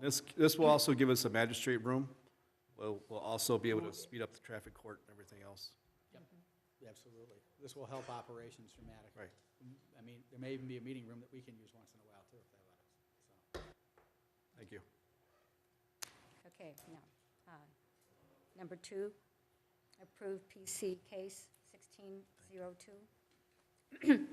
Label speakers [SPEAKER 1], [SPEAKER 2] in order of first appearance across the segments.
[SPEAKER 1] This, this will also give us a magistrate room. We'll, we'll also be able to speed up the traffic court and everything else.
[SPEAKER 2] Absolutely. This will help operations dramatically. Mm-hmm.
[SPEAKER 1] Right.
[SPEAKER 2] I mean, there may even be a meeting room that we can use once in a while too, if they let us. So,
[SPEAKER 1] Thank you.
[SPEAKER 3] Okay, no. Uh, Number two, approve PC case 1602.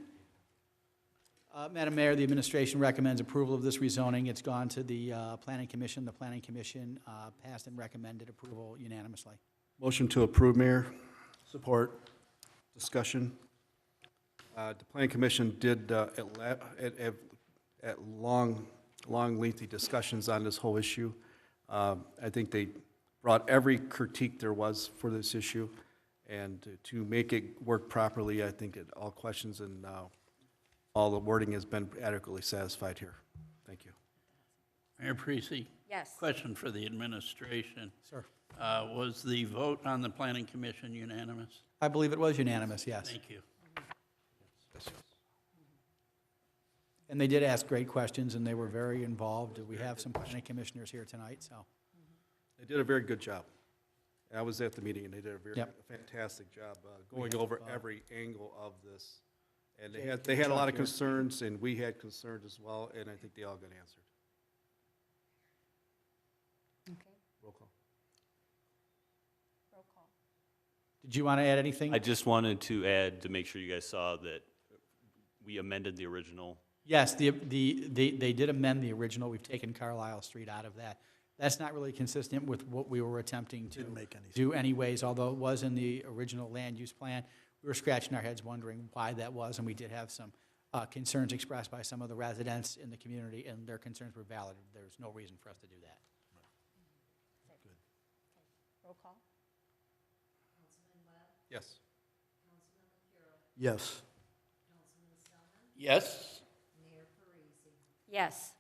[SPEAKER 2] Uh, Madam Mayor, the administration recommends approval of this rezoning. It's gone to the uh, Planning Commission. The Planning Commission uh, passed and recommended approval unanimously.
[SPEAKER 1] Motion to approve, Mayor. Support. Discussion. Uh, The Planning Commission did, uh, at la- at at- at long, long lengthy discussions on this whole issue. Um, I think they brought every critique there was for this issue, and to- to make it work properly, I think that all questions and uh, all the wording has been adequately satisfied here. Thank you.
[SPEAKER 4] Mayor Parisi,
[SPEAKER 3] Yes.
[SPEAKER 4] question for the administration.
[SPEAKER 2] Sir.
[SPEAKER 4] Uh, Was the vote on the planning commission unanimous?
[SPEAKER 2] I believe it was unanimous, yes.
[SPEAKER 4] Thank you.
[SPEAKER 2] And they did ask great questions, and they were very involved. We have some planning commissioners here tonight, so.
[SPEAKER 1] They did a very good job. And I was at the meeting, and they did a very
[SPEAKER 2] Yep.
[SPEAKER 1] fantastic job uh, going over every angle of this. And they had, they had a lot of concerns, and we had concerns as well, and I think they all got answered.
[SPEAKER 3] Okay,
[SPEAKER 1] Roll call.
[SPEAKER 3] roll call.
[SPEAKER 2] Did you want to add anything?
[SPEAKER 5] I just wanted to add, to make sure you guys saw that we amended the original.
[SPEAKER 2] Yes, the, the, they, they did amend the original, we've taken Carlisle Street out of that. That's not really consistent with what we were attempting to do anyways, although it was in the original land use plan. We were scratching our heads wondering why that was, and we did have some, uh, concerns expressed by some of the residents in the community, and their concerns were valid. There's no reason for us to do that.
[SPEAKER 3] Roll call?
[SPEAKER 1] Yes.
[SPEAKER 6] Yes.
[SPEAKER 4] Yes?
[SPEAKER 3] Yes.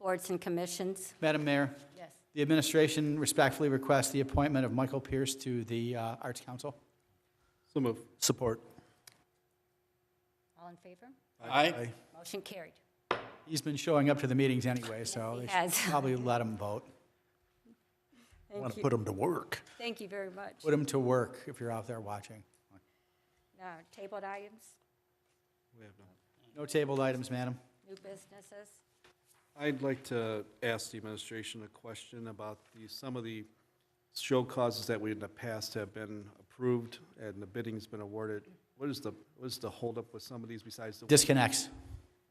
[SPEAKER 3] Boards and commissions?
[SPEAKER 2] Madam Mayor,
[SPEAKER 3] Yes.
[SPEAKER 2] the administration respectfully requests the appointment of Michael Pierce to the, uh, Arts Council.
[SPEAKER 1] So move.
[SPEAKER 6] Support.
[SPEAKER 3] All in favor?
[SPEAKER 4] Aye.
[SPEAKER 3] Motion carried.
[SPEAKER 2] He's been showing up to the meetings anyway, so
[SPEAKER 3] he
[SPEAKER 2] they should
[SPEAKER 3] has.
[SPEAKER 2] probably let him vote.
[SPEAKER 6] Want
[SPEAKER 3] Thank
[SPEAKER 6] to
[SPEAKER 3] you,
[SPEAKER 6] put them to work.
[SPEAKER 3] thank you very much.
[SPEAKER 2] Put them to work if you're out there watching.
[SPEAKER 3] Now, tabled items,
[SPEAKER 1] We have none.
[SPEAKER 2] No tabled items, madam.
[SPEAKER 3] new businesses,
[SPEAKER 1] I'd like to ask the administration a question about the, some of the show causes that we in the past have been approved and the bidding's been awarded. What is the, what is the holdup with some of these besides the
[SPEAKER 2] Disconnects,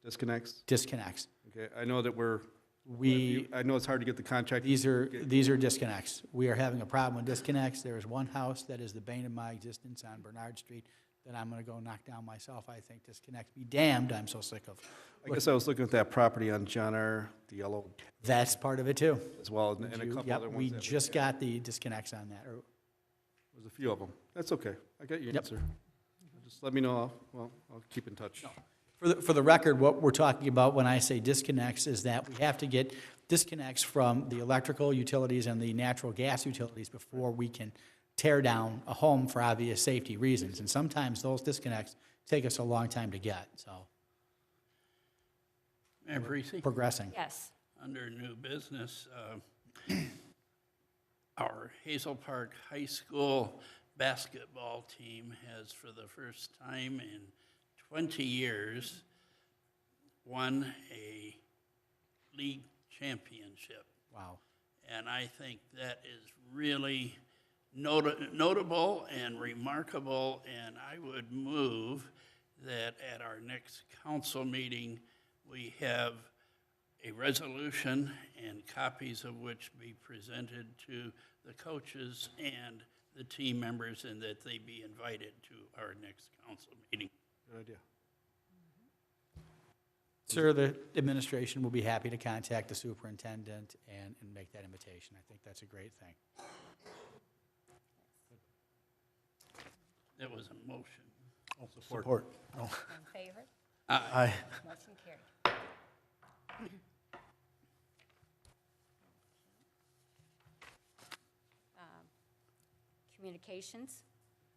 [SPEAKER 1] disconnects?
[SPEAKER 2] disconnects.
[SPEAKER 1] Okay, I know that we're,
[SPEAKER 2] We,
[SPEAKER 1] I know it's hard to get the contract.
[SPEAKER 2] these are, these are disconnects. We are having a problem with disconnects. There is one house that is the bane of my existence on Bernard Street that I'm gonna go knock down myself, I think, disconnects. Be damned, I'm so sick of.
[SPEAKER 1] I guess I was looking at that property on John R., the yellow,
[SPEAKER 2] That's part of it too.
[SPEAKER 1] as well, and and a
[SPEAKER 2] You-
[SPEAKER 1] couple
[SPEAKER 2] yep,
[SPEAKER 1] other ones.
[SPEAKER 2] We
[SPEAKER 1] that
[SPEAKER 2] just got the disconnects on that. or-
[SPEAKER 1] There's a few of them. That's okay. I got your
[SPEAKER 2] Yep.
[SPEAKER 1] answer. Just let me know. I'll- Well, I'll keep in touch.
[SPEAKER 2] For the, for the record, what we're talking about when I say disconnects is that we have to get disconnects from the electrical utilities and the natural gas utilities before we can tear down a home for obvious safety reasons. And sometimes those disconnects take us a long time to get, so
[SPEAKER 4] Mayor Parisi,
[SPEAKER 2] progressing.
[SPEAKER 3] yes.
[SPEAKER 4] under new business, uh, our Hazel Park High School basketball team has, for the first time in 20 years, won a league championship.
[SPEAKER 2] Wow.
[SPEAKER 4] And I think that is really noti- notable and remarkable, and I would move that at our next council meeting, we have a resolution and copies of which be presented to the coaches and the team members, and that they be invited to our next council meeting.
[SPEAKER 1] Good idea.
[SPEAKER 2] Sir, the administration will be happy to contact the superintendent and, and make that invitation. I think that's a great thing.
[SPEAKER 4] That was a motion.
[SPEAKER 6] Support. No.
[SPEAKER 3] In favor?
[SPEAKER 6] Aye.
[SPEAKER 3] Motion carried. Um, Communications,